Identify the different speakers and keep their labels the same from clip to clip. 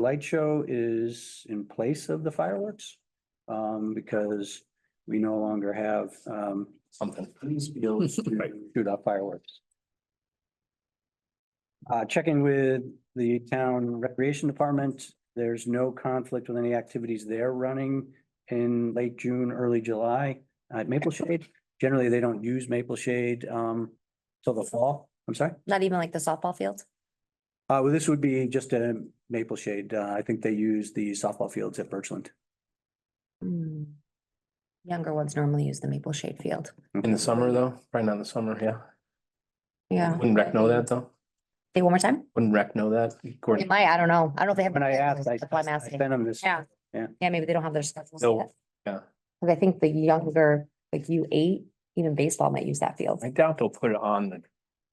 Speaker 1: light show is in place of the fireworks. Um, because we no longer have, um,
Speaker 2: something.
Speaker 1: these bills to shoot off fireworks. Uh, checking with the town recreation department, there's no conflict with any activities they're running in late June, early July at Maple Shade. Generally, they don't use Maple Shade, um, till the fall. I'm sorry.
Speaker 3: Not even like the softball field?
Speaker 1: Uh, well, this would be just a Maple Shade. Uh, I think they use the softball fields at Birchland.
Speaker 3: Younger ones normally use the maple shade field.
Speaker 2: In the summer though, probably not in the summer, yeah.
Speaker 3: Yeah.
Speaker 2: Wouldn't rec know that though?
Speaker 3: Say one more time?
Speaker 2: Wouldn't rec know that?
Speaker 3: It
Speaker 2: Gordon,
Speaker 3: might, I don't know. I don't know if they have.
Speaker 1: When I asked, I
Speaker 3: That's why I'm
Speaker 1: I
Speaker 3: asking.
Speaker 1: sent them this.
Speaker 3: Yeah.
Speaker 1: Yeah.
Speaker 3: Yeah, maybe they don't have their schedules
Speaker 2: No,
Speaker 3: yet.
Speaker 2: yeah.
Speaker 3: Cause I think the younger, like you eight, even baseball might use that field.
Speaker 2: I doubt they'll put it on the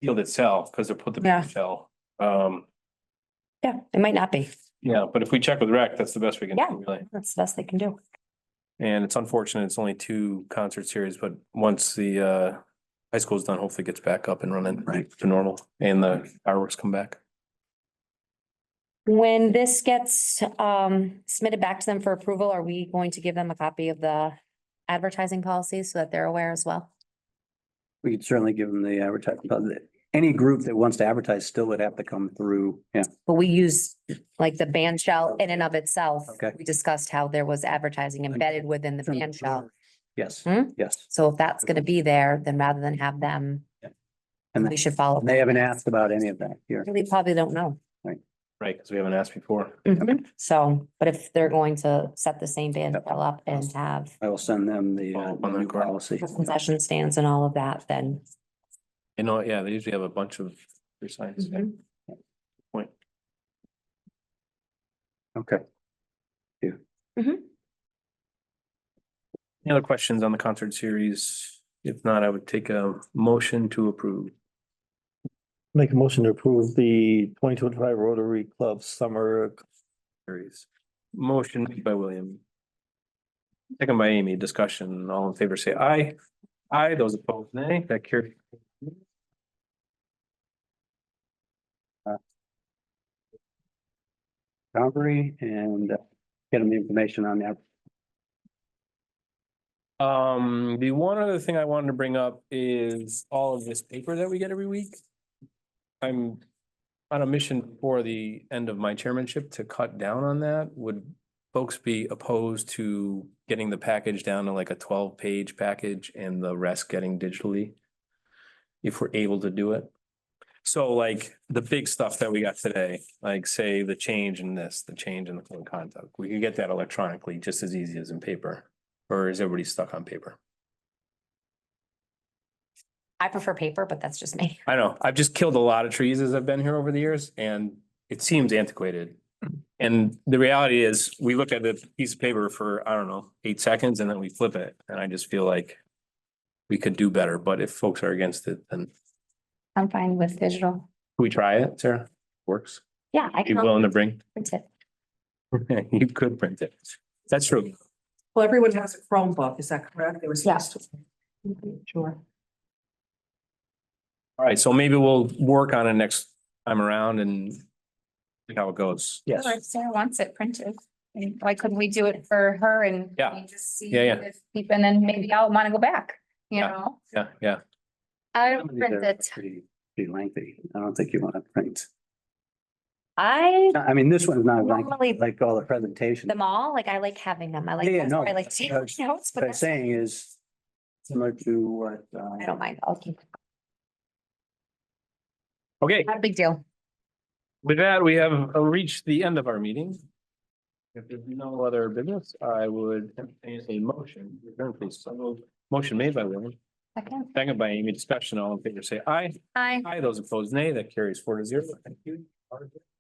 Speaker 2: field itself because they'll put the
Speaker 3: Yeah.
Speaker 2: big shell. Um,
Speaker 3: Yeah, it might not be.
Speaker 2: yeah, but if we check with rec, that's the best we can
Speaker 3: Yeah.
Speaker 2: do really.
Speaker 3: That's the best they can do.
Speaker 2: And it's unfortunate, it's only two concert series, but once the uh high school's done, hopefully it gets back up and running
Speaker 1: Right.
Speaker 2: to normal and the fireworks come back.
Speaker 3: When this gets um submitted back to them for approval, are we going to give them a copy of the advertising policy so that they're aware as well?
Speaker 1: We could certainly give them the advertising, but any group that wants to advertise still would have to come through. Yeah,
Speaker 3: But we use like the band shell in and of itself.
Speaker 1: Okay.
Speaker 3: We discussed how there was advertising embedded within the band shell.
Speaker 1: yes,
Speaker 3: Hmm?
Speaker 1: yes.
Speaker 3: So if that's gonna be there, then rather than have them,
Speaker 1: And
Speaker 3: we should follow.
Speaker 1: they haven't asked about any of that here.
Speaker 3: They probably don't know.
Speaker 2: Right, because we haven't asked before.
Speaker 3: Mm-hmm. So, but if they're going to set the same band shell up and have
Speaker 1: I will send them the uh,
Speaker 2: Follow up on that,
Speaker 1: new
Speaker 2: Gordon.
Speaker 1: policy.
Speaker 3: concession stands and all of that, then.
Speaker 2: You know, uh, yeah, they usually have a bunch of free signs.
Speaker 3: Mm-hmm.
Speaker 2: yeah. Point.
Speaker 1: Okay.
Speaker 2: Any other questions on the concert series? If not, I would take a motion to approve.
Speaker 4: Make a motion to approve the twenty twenty-five Rotary Club Summer.
Speaker 2: Series. Motion made by William. Second by Amy, discussion, all in favor, say aye. Aye, those opposed, nay, that carries.
Speaker 1: Calgary and uh, get them the information on that.
Speaker 2: Um, the one other thing I wanted to bring up is all of this paper that we get every week. I'm on a mission for the end of my chairmanship to cut down on that. Would folks be opposed to getting the package down to like a twelve-page package and the rest getting digitally? If we're able to do it. So like the big stuff that we got today, like say the change in this, the change in the code of conduct, we could get that electronically just as easy as in paper. Or is everybody stuck on paper?
Speaker 3: I prefer paper, but that's just me.
Speaker 2: I know, I've just killed a lot of trees as I've been here over the years and it seems antiquated. And the reality is, we look at the piece of paper for, I don't know, eight seconds and then we flip it. And I just feel like we could do better, but if folks are against it, then can
Speaker 3: I'm fine with digital.
Speaker 2: we try it, Sarah? Works.
Speaker 3: Yeah, I
Speaker 2: You
Speaker 3: can
Speaker 2: willing to bring?
Speaker 3: print it.
Speaker 2: You could print it. That's true.
Speaker 5: Well, everyone has a Chromebook, is that correct? They were supposed to. Sure.
Speaker 2: All right, so maybe we'll work on it next time around and see how it goes.
Speaker 1: Yes.
Speaker 6: Or if Sarah wants it printed, I mean, why couldn't we do it for her and?
Speaker 2: Yeah.
Speaker 6: we Just see.
Speaker 2: Yeah, yeah.
Speaker 6: if people- And then maybe I'll want to go back, you
Speaker 2: Yeah.
Speaker 6: know?
Speaker 2: Yeah, yeah.
Speaker 6: I
Speaker 1: Some of
Speaker 6: don't
Speaker 1: these
Speaker 6: print
Speaker 1: are
Speaker 6: it.
Speaker 1: Pretty pretty lengthy. I don't think you want to print.
Speaker 3: I
Speaker 1: I mean, this one's not like,
Speaker 3: normally
Speaker 1: like all the presentation.
Speaker 3: them all, like I like having them. I like,
Speaker 1: Yeah, yeah,
Speaker 3: that's why
Speaker 1: no,
Speaker 3: I like
Speaker 1: that's-
Speaker 3: taking
Speaker 1: that's-
Speaker 3: notes, but
Speaker 1: What I'm
Speaker 3: that's-
Speaker 1: saying is similar to what,
Speaker 3: I
Speaker 1: uh,
Speaker 3: don't mind. I'll keep,
Speaker 2: Okay.
Speaker 3: not a big deal.
Speaker 2: With that, we have uh, reached the end of our meeting. If there's no other business, I would entertain a motion. to adjourn, please. So moved. Motion made by William,
Speaker 6: Second.
Speaker 2: second by Amy, discussion, all in favor, say aye.
Speaker 6: Hi.
Speaker 2: Aye, those opposed, nay, that carries four to zero. Thank you.